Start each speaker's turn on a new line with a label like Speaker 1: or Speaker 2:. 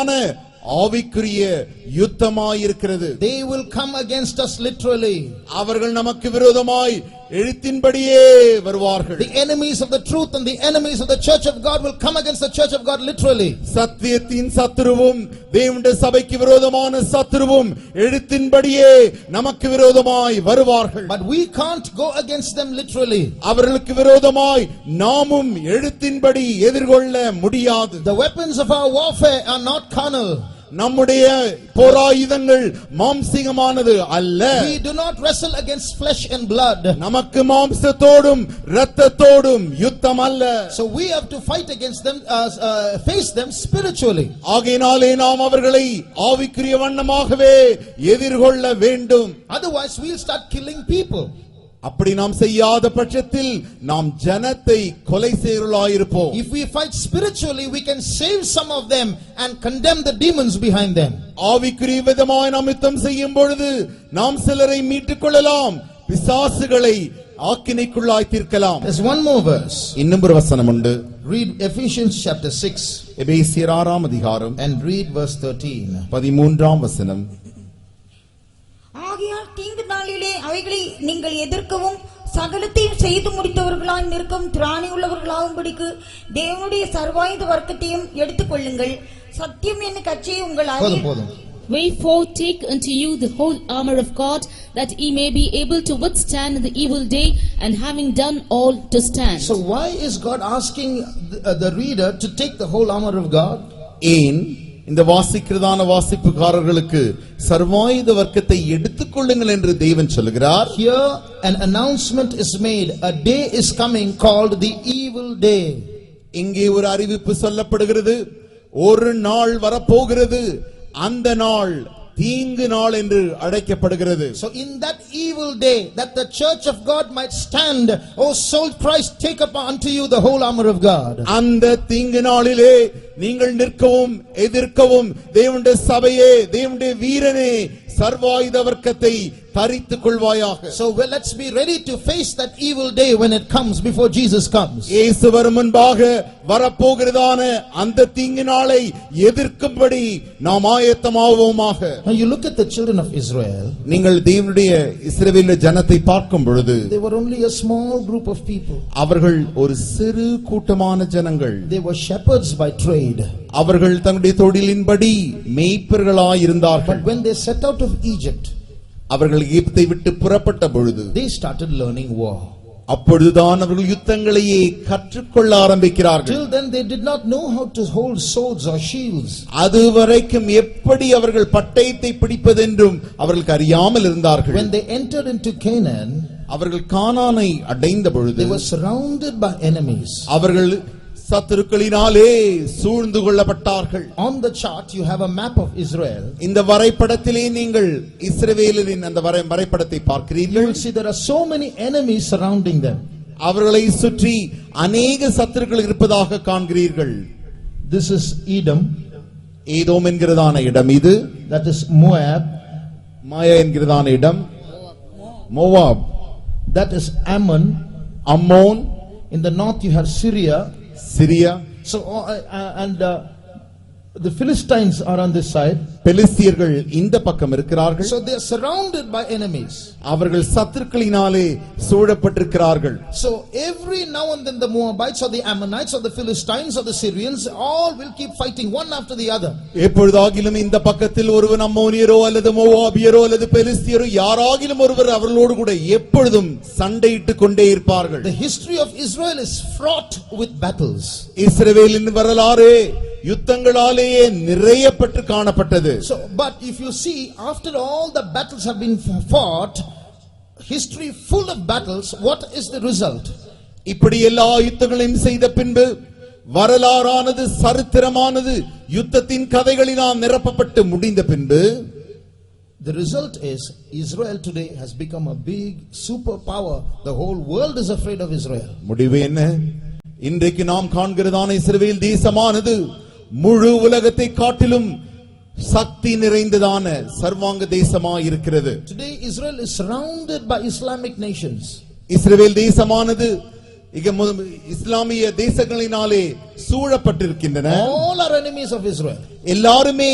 Speaker 1: ஆன ஆவிக்குரிய யுத்தமாயிருக்கிறது
Speaker 2: They will come against us literally.
Speaker 1: அவர்கள் நமக்கு விரோதமாய் எழுத்தின்படியே வருவார்கள்
Speaker 2: The enemies of the truth and the enemies of the church of God will come against the church of God literally.
Speaker 1: சத்தியத்தின் சத்துருவும் தேவனுடைய சபைக்கு விரோதமான சத்துருவும் எழுத்தின்படியே நமக்கு விரோதமாய் வருவார்கள்
Speaker 2: But we can't go against them literally.
Speaker 1: அவர்களுக்கு விரோதமாய் நாமும் எழுத்தின்படி எதிர்கொள்ள முடியாது
Speaker 2: The weapons of our warfare are not carnal.
Speaker 1: நம்முடைய போராயுதங்கள் மாம்சிகமானது அல்ல
Speaker 2: We do not wrestle against flesh and blood.
Speaker 1: நமக்கு மாம்சத்தோடும் இரத்தத்தோடும் யுத்தம் அல்ல
Speaker 2: So we have to fight against them, uh, uh, face them spiritually.
Speaker 1: ஆகையினாலே நாம் அவர்களை ஆவிக்குரிய வண்ணமாகவே எதிர்கொள்ள வேண்டும்
Speaker 2: Otherwise, we'll start killing people.
Speaker 1: அப்படி நாம் செய்யாத பட்சத்தில் நாம் ஜனத்தை கொலை செய்கிறவர்களாயிருப்போம்
Speaker 2: If we fight spiritually, we can save some of them and condemn the demons behind them.
Speaker 1: ஆவிக்குரிய விதமாய் நாம் யுத்தம் செய்யும் பொழுது நாம் சிலரை மீட்டுக் கொள்ளலாம் பிசாசுகளை ஆக்கினைக்குள்ளாய் தீர்க்கலாம்
Speaker 2: There's one more verse.
Speaker 1: இன்னும் ஒரு வசனம் உண்டு
Speaker 2: Read Ephesians chapter 6
Speaker 1: எபேசியர் ஆறாம் அதிகாரம்
Speaker 2: and read verse 13.
Speaker 1: பதிமூன்றாம் வசனம்
Speaker 3: ஆகையால் தீங்கு நாளிலே அவைகளை நீங்கள் எதிர்க்கவும் சகலத்தையும் செய்து முடித்தவர்களாய் நிற்கும் திராணி உள்ளவர்களாகும்படிக்கு தேவனுடைய சர்வாயுத வர்க்கத்தையும் எடுத்துக்கொள்ளுங்கள் சத்தியம் என்னும் கட்சியை உங்கள்
Speaker 2: போதும்
Speaker 3: அரிய-
Speaker 2: போதும்
Speaker 4: Wherefore take unto you the whole armor of God, that ye may be able to withstand in the evil day, and having done all to stand.
Speaker 2: So why is God asking the, uh, the reader to take the whole armor of God?
Speaker 1: ஏன் இந்த வாசிக்கிறதான வாசிப்புக்காரர்களுக்கு சர்வாயுத வர்க்கத்தை எடுத்துக்கொள்ளுங்கள் என்று தேவன் சொல்கிறார்
Speaker 2: Here an announcement is made. A day is coming called the evil day.
Speaker 1: இங்கே ஒரு அறிவிப்பு சொல்லப்படுகிறது ஒரு நாள் வரப்போகிறது அந்த நாள் தீங்கு நாள் என்று அழைக்கப்படுகிறது
Speaker 2: So in that evil day, that the church of God might stand, O soul Christ, take up unto you the whole armor of God.
Speaker 1: அந்த தீங்கு நாளிலே நீங்கள் நிற்கவும் எதிர்க்கவும் தேவனுடைய சபையே தேவனுடைய வீரனே சர்வாயுத வர்க்கத்தை தரித்துக் கொள்வாயாக
Speaker 2: So well, let's be ready to face that evil day when it comes before Jesus comes.
Speaker 1: இயேசுவர் முன்பாக வரப்போகிறதான அந்த தீங்கு நாளை எதிர்க்கும்படி நாம் ஆயத்தமாவோமாக
Speaker 2: Now you look at the children of Israel.
Speaker 1: நீங்கள் தேவனுடைய இஸ்ரவேல ஜனத்தை பார்க்கும் பொழுது
Speaker 2: They were only a small group of people.
Speaker 1: அவர்கள் ஒரு சிறு கூட்டமான ஜனங்கள்
Speaker 2: They were shepherds by trade.
Speaker 1: அவர்கள் தன்னுடைய தொழிலின்படி
Speaker 2: But
Speaker 1: மேய்ப்பர்களாயிருந்தார்கள்
Speaker 2: when they set out of Egypt,
Speaker 1: அவர்கள் எகிப்தை விட்டு புறப்பட்ட பொழுது
Speaker 2: they started learning war.
Speaker 1: அப்பொழுதுதான் அவர்கள் யுத்தங்களையே கற்றுக்கொள்ள ஆரம்பிக்கிறார்கள்
Speaker 2: Till then, they did not know how to hold swords or shields.
Speaker 1: அதுவரைக்கும் எப்படி அவர்கள் பட்டயத்தை பிடிப்பதென்றும் அவர்களுக்கு அறியாமல் இருந்தார்கள்
Speaker 2: When they entered into Canaan,
Speaker 1: அவர்கள் கானானை அடைந்த பொழுது
Speaker 2: they were surrounded by enemies.
Speaker 1: அவர்கள் சத்துருக்களினாலே சூழ்ந்து கொள்ளப்பட்டார்கள்
Speaker 2: On the chart, you have a map of Israel.
Speaker 1: இந்த வரைபடத்திலே நீங்கள் இஸ்ரவேலரின் அந்த வரை வரைபடத்தை
Speaker 2: You
Speaker 1: பார்க்கிறீர்கள்
Speaker 2: will see there are so many enemies surrounding them.
Speaker 1: அவர்களை சுற்றி அநேக சத்துருக்கள் இருப்பதாக காண்கிறீர்கள்
Speaker 2: This is Edom,
Speaker 1: ஏதோம் என்கிறதான இடம் இது
Speaker 2: that is Moab,
Speaker 1: மாயா என்கிறதான இடம் மோவாப்
Speaker 2: that is Ammon.
Speaker 1: அம்மோன்
Speaker 2: In the north, you have Syria.
Speaker 1: சிரியா
Speaker 2: So, uh, uh, and uh, the Philistines are on this side.
Speaker 1: பெலிஸ்தியர்கள் இந்த பக்கம் இருக்கிறார்கள்
Speaker 2: So they are surrounded by enemies.
Speaker 1: அவர்கள் சத்துருக்களினாலே சூழப்பட்டிருக்கிறார்கள்
Speaker 2: So every now and then the Moabites or the Ammonites or the Philistines or the Syrians all will keep fighting one after the other.
Speaker 1: எப்பொழுதாகிலும் இந்த பக்கத்தில் ஒருவன் அம்மோனியரோ அல்லது மோவாபியரோ அல்லது பெலிஸ்தியரோ யாராகிலும் ஒருவர் அவர்களோடு கூட எப்பொழுதும் சண்டையிட்டுக் கொண்டே இருப்பார்கள்
Speaker 2: The history of Israel is fraught with battles.
Speaker 1: இஸ்ரவேலின் வரலாறு யுத்தங்களாலேயே நிறையப்பட்டு காணப்பட்டது
Speaker 2: So, but if you see, after all the battles have been fought, history full of battles, what is the result?
Speaker 1: இப்படி எல்லா யுத்தங்களையும் செய்த பின்பு வரலாறானது சரித்திரமானது யுத்தத்தின் கதைகளினால் நிரப்பப்பட்டு முடிந்த பின்பு
Speaker 2: The result is Israel today has become a big superpower. The whole world is afraid of Israel.
Speaker 1: முடிவு என்ன இன்றைக்கு நாம் காண்கிறதான இஸ்ரவேல் தேசமானது முழு உலகத்தை காட்டிலும் சக்தி நிறைந்ததான சர்வாங்க தேசமாய் இருக்கிறது
Speaker 2: Today, Israel is surrounded by Islamic nations.
Speaker 1: இஸ்ரவேல் தேசமானது இக மு- இஸ்லாமிய தேசங்களினாலே சூழப்பட்டிருக்கின்றன
Speaker 2: All are enemies of Israel.
Speaker 1: எல்லாருமே